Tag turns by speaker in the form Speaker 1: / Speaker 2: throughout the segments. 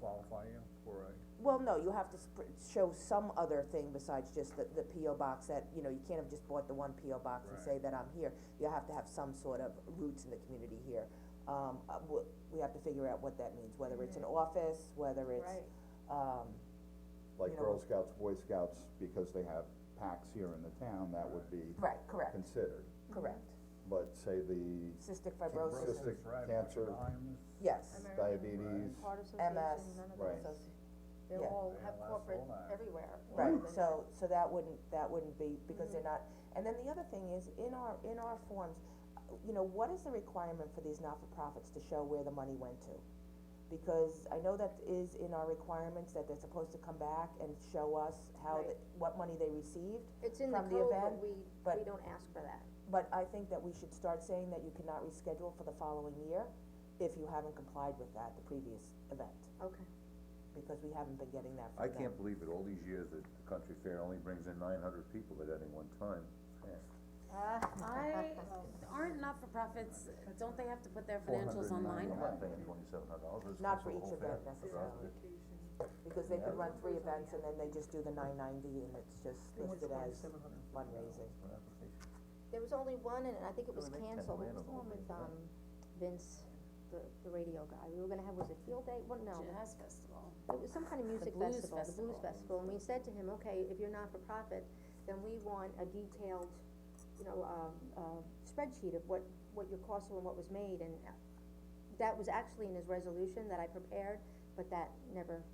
Speaker 1: qualify you for a,
Speaker 2: Well, no, you have to sp- show some other thing besides just the, the P O box that, you know, you can't have just bought the one P O box and say that I'm here. You have to have some sort of roots in the community here. Um, uh, we, we have to figure out what that means, whether it's an office, whether it's,
Speaker 3: Right.
Speaker 2: um,
Speaker 4: like
Speaker 2: You know-
Speaker 4: Girl Scouts, Boy Scouts, because they have packs here in the town, that would be
Speaker 2: right, correct,
Speaker 4: considered.
Speaker 2: correct.
Speaker 4: But say the
Speaker 2: Cystic
Speaker 4: Fibrosis.
Speaker 2: fibrosis,
Speaker 4: Cystic
Speaker 1: right,
Speaker 4: cancer.
Speaker 1: Lyme,
Speaker 2: yes,
Speaker 3: American
Speaker 4: diabetes,
Speaker 3: Heart Association,
Speaker 2: MS,
Speaker 3: none of
Speaker 4: Right.
Speaker 3: those, they
Speaker 2: Yeah.
Speaker 3: all
Speaker 1: Yeah,
Speaker 3: have
Speaker 1: that's
Speaker 3: corporate
Speaker 1: all that.
Speaker 3: everywhere.
Speaker 2: right,
Speaker 3: They-
Speaker 2: so, so that wouldn't, that wouldn't be, because they're not, and then the other thing is, in our, in our forms, uh, you know, what is the requirement for these not-for-profits to show where the money went to? Because I know that is in our requirements, that they're supposed to come back and show us how, the- what money they received,
Speaker 3: It's in the
Speaker 2: from the
Speaker 3: code, but
Speaker 2: event,
Speaker 3: we,
Speaker 2: but-
Speaker 3: we don't ask for that.
Speaker 2: but I think that we should start saying that you cannot reschedule for the following year if you haven't complied with that, the previous event,
Speaker 3: Okay.
Speaker 2: because we haven't been getting that from
Speaker 5: I
Speaker 2: them.
Speaker 5: can't believe it, all these years that the country fair only brings in nine hundred people at any one time.
Speaker 6: I, aren't not-for-profits, don't they have to put their financials online?
Speaker 5: I'm not paying twenty-seven hundred dollars, it's
Speaker 2: Not for
Speaker 5: the whole
Speaker 2: each
Speaker 5: fair.
Speaker 2: event necessarily, because they could run three events and then they just do the nine ninety and it's just listed as fundraising.
Speaker 3: There was only one, and I think it was
Speaker 5: Really, ten
Speaker 3: canceled, it
Speaker 5: grand
Speaker 3: was the
Speaker 5: on the
Speaker 3: one
Speaker 5: whole
Speaker 3: with, um,
Speaker 5: thing.
Speaker 3: Vince, the, the radio guy, we were gonna have, was it Field Day, what, no,
Speaker 6: Jazz festival.
Speaker 3: it was some kind of music
Speaker 6: Blues
Speaker 3: festival, the blues
Speaker 6: Festival.
Speaker 3: festival, and we said to him, okay, if you're not-for-profit, then we want a detailed, you know, um, uh, spreadsheet of what, what your costs were and what was made, and uh, that was actually in his resolution that I prepared, but that never,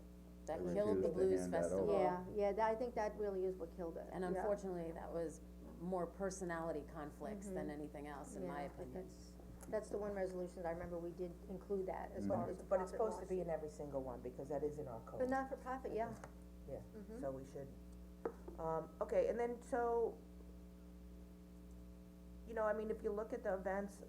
Speaker 6: That
Speaker 4: They
Speaker 6: killed the
Speaker 4: refused to hand
Speaker 6: blues
Speaker 4: that over.
Speaker 6: festival.
Speaker 3: yeah, yeah, that, I think that really is what killed it,
Speaker 6: And
Speaker 3: yeah.
Speaker 6: unfortunately, that was more personality conflicts than anything else,
Speaker 3: Mm-hmm.
Speaker 6: in
Speaker 3: Yeah,
Speaker 6: my
Speaker 3: I think
Speaker 6: opinion.
Speaker 3: that's, that's the one resolution that I remember we did include that as far as the
Speaker 2: Mm-hmm. But it's
Speaker 3: profit
Speaker 2: supposed to be
Speaker 3: loss.
Speaker 2: in every single one, because that is in our
Speaker 3: But Mm-hmm.
Speaker 2: code,
Speaker 3: not-for-profit, yeah,
Speaker 2: yeah, so we should, um, okay, and then so, you know, I mean, if you look at the events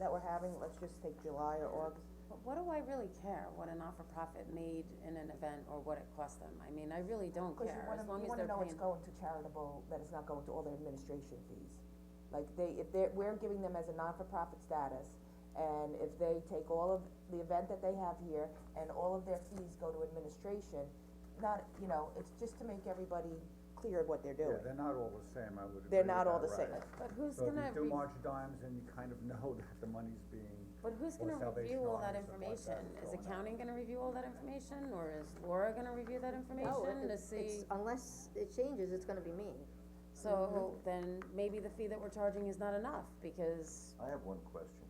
Speaker 2: that we're having, let's just take July or August,
Speaker 6: But what do I really care what a not-for-profit made in an event or what it cost them? I mean, I really don't
Speaker 2: Cause you
Speaker 6: care,
Speaker 2: wanna,
Speaker 6: as long
Speaker 2: you
Speaker 6: as
Speaker 2: wanna
Speaker 6: they're
Speaker 2: know it's
Speaker 6: paying.
Speaker 2: going to charitable, that it's not going to all their administration fees. Like they, if they're, we're giving them as a non-for-profit status, and if they take all of the event that they have here, and all of their fees go to administration, not, you know, it's just to make everybody clear of what they're
Speaker 1: Yeah,
Speaker 2: doing.
Speaker 1: they're not all the same, I would agree
Speaker 2: They're
Speaker 1: with
Speaker 2: not all the
Speaker 1: that,
Speaker 2: same,
Speaker 1: right.
Speaker 6: But who's
Speaker 1: So if
Speaker 6: gonna,
Speaker 1: you do
Speaker 6: re-
Speaker 1: March Dimes and you kind of know that the money's being,
Speaker 6: but who's
Speaker 1: or
Speaker 6: gonna
Speaker 1: Salvation
Speaker 6: review all that
Speaker 1: Army and stuff like that
Speaker 6: information? Is
Speaker 1: going out.
Speaker 6: accounting gonna review all that information, or is Laura gonna review that information to see?
Speaker 3: Oh, it's, unless it changes, it's gonna be me.
Speaker 6: So
Speaker 2: Mm-hmm.
Speaker 6: then maybe the fee that we're charging is not enough, because
Speaker 5: I have one question,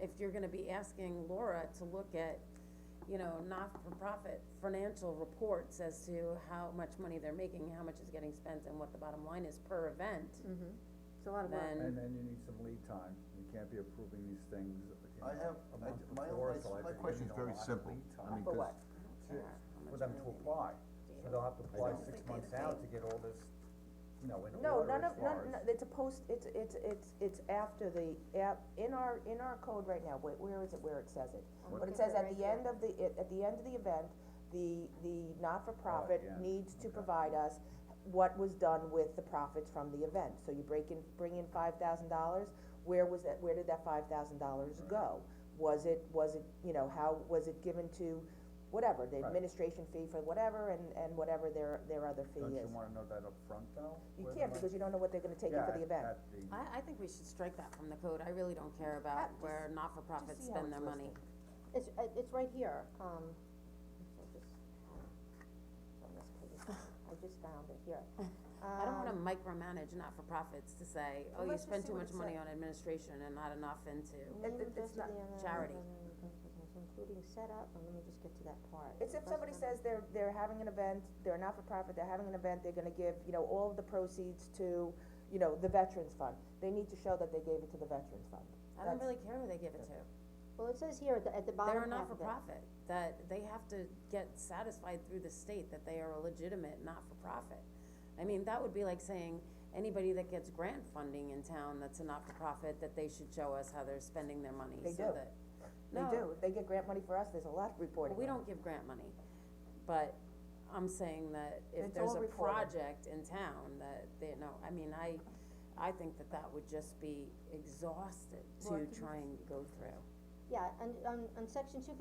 Speaker 6: if you're gonna be asking Laura to look at, you know, not-for-profit financial reports as to how much money they're making, how much is getting spent, and what the bottom line is per event,
Speaker 2: Mm-hmm.
Speaker 3: It's a lot of work.
Speaker 1: and
Speaker 6: then,
Speaker 1: then you need some lead time, you can't be approving these things, you know,
Speaker 5: I have-
Speaker 1: a
Speaker 5: I
Speaker 1: month
Speaker 5: d- my-
Speaker 1: before,
Speaker 5: my-
Speaker 1: so I
Speaker 5: my
Speaker 1: think we
Speaker 5: question's
Speaker 1: need a
Speaker 5: very
Speaker 1: lot of
Speaker 5: simple.
Speaker 1: lead
Speaker 5: I
Speaker 1: time
Speaker 5: mean,
Speaker 2: For
Speaker 5: 'cause
Speaker 2: what?
Speaker 1: to- for them to apply, so they'll have to apply six months out to get all this, you know, in
Speaker 2: No,
Speaker 1: order
Speaker 2: none
Speaker 1: as
Speaker 2: of,
Speaker 1: far
Speaker 2: none,
Speaker 1: as-
Speaker 2: no, it's a post, it's, it's, it's, it's after the, app, in our, in our code right now, where, where is it, where it says it? But it says at the end of the, it- at the end of the event, the, the not-for-profit
Speaker 1: Oh, yeah.
Speaker 2: needs to provide us what was done with the profits from the event. So you break in, bring in five thousand dollars, where was that, where did that five thousand dollars go? Was it, was it, you know, how, was it given to, whatever, the
Speaker 1: Right.
Speaker 2: administration fee for whatever, and, and whatever their, their other fee is.
Speaker 1: Don't you wanna know that up front though?
Speaker 2: You
Speaker 1: where the
Speaker 2: can't,
Speaker 1: money-
Speaker 2: because you don't know what they're gonna take in for the event.
Speaker 1: Yeah, at- at the-
Speaker 6: I, I think we should strike that from the code, I really don't care about
Speaker 2: just-
Speaker 6: where not-for-profits
Speaker 2: just see how
Speaker 6: spend their
Speaker 2: it's
Speaker 6: money.
Speaker 3: It's, uh, it's right here, um, I'll just, on this page, I just found it here. Um,
Speaker 6: I don't wanna micromanage not-for-profits to say, oh,
Speaker 2: Um,
Speaker 6: you
Speaker 2: let's just
Speaker 6: spend
Speaker 2: see
Speaker 6: too
Speaker 2: what
Speaker 6: much
Speaker 2: it
Speaker 6: money on administration and not enough into.
Speaker 2: It- it- it's not
Speaker 6: charity.
Speaker 3: uh, Including setup, and let me just get to that part.
Speaker 2: It's if
Speaker 3: First
Speaker 2: somebody
Speaker 3: one.
Speaker 2: says they're, they're having an event, they're a not-for-profit, they're having an event, they're gonna give, you know, all of the proceeds to, you know, the veterans fund. They need to show that they gave it to the veterans fund.
Speaker 6: I don't
Speaker 2: That's-
Speaker 6: really care who they give it to.
Speaker 3: Well, it says here at the, at the bottom
Speaker 6: They're
Speaker 3: half
Speaker 6: a
Speaker 3: of it.
Speaker 6: not-for-profit, that they have to get satisfied through the state that they are a legitimate not-for-profit. I mean, that would be like saying, anybody that gets grant funding in town that's a not-for-profit, that they should show us how they're spending their money,
Speaker 2: They
Speaker 6: so
Speaker 2: do.
Speaker 6: that.
Speaker 2: They
Speaker 6: No,
Speaker 2: do, they get grant money for us, there's a lot of reporting.
Speaker 6: but we
Speaker 2: on it.
Speaker 6: don't give grant money, but I'm saying that if
Speaker 2: It's
Speaker 6: there's
Speaker 2: all
Speaker 6: a
Speaker 2: reported.
Speaker 6: project in town that they, no, I mean, I, I think that that would just be exhausted
Speaker 3: Laura,
Speaker 6: to
Speaker 3: can you-
Speaker 6: try and go through.
Speaker 3: Yeah, and, um, on, on section two fifty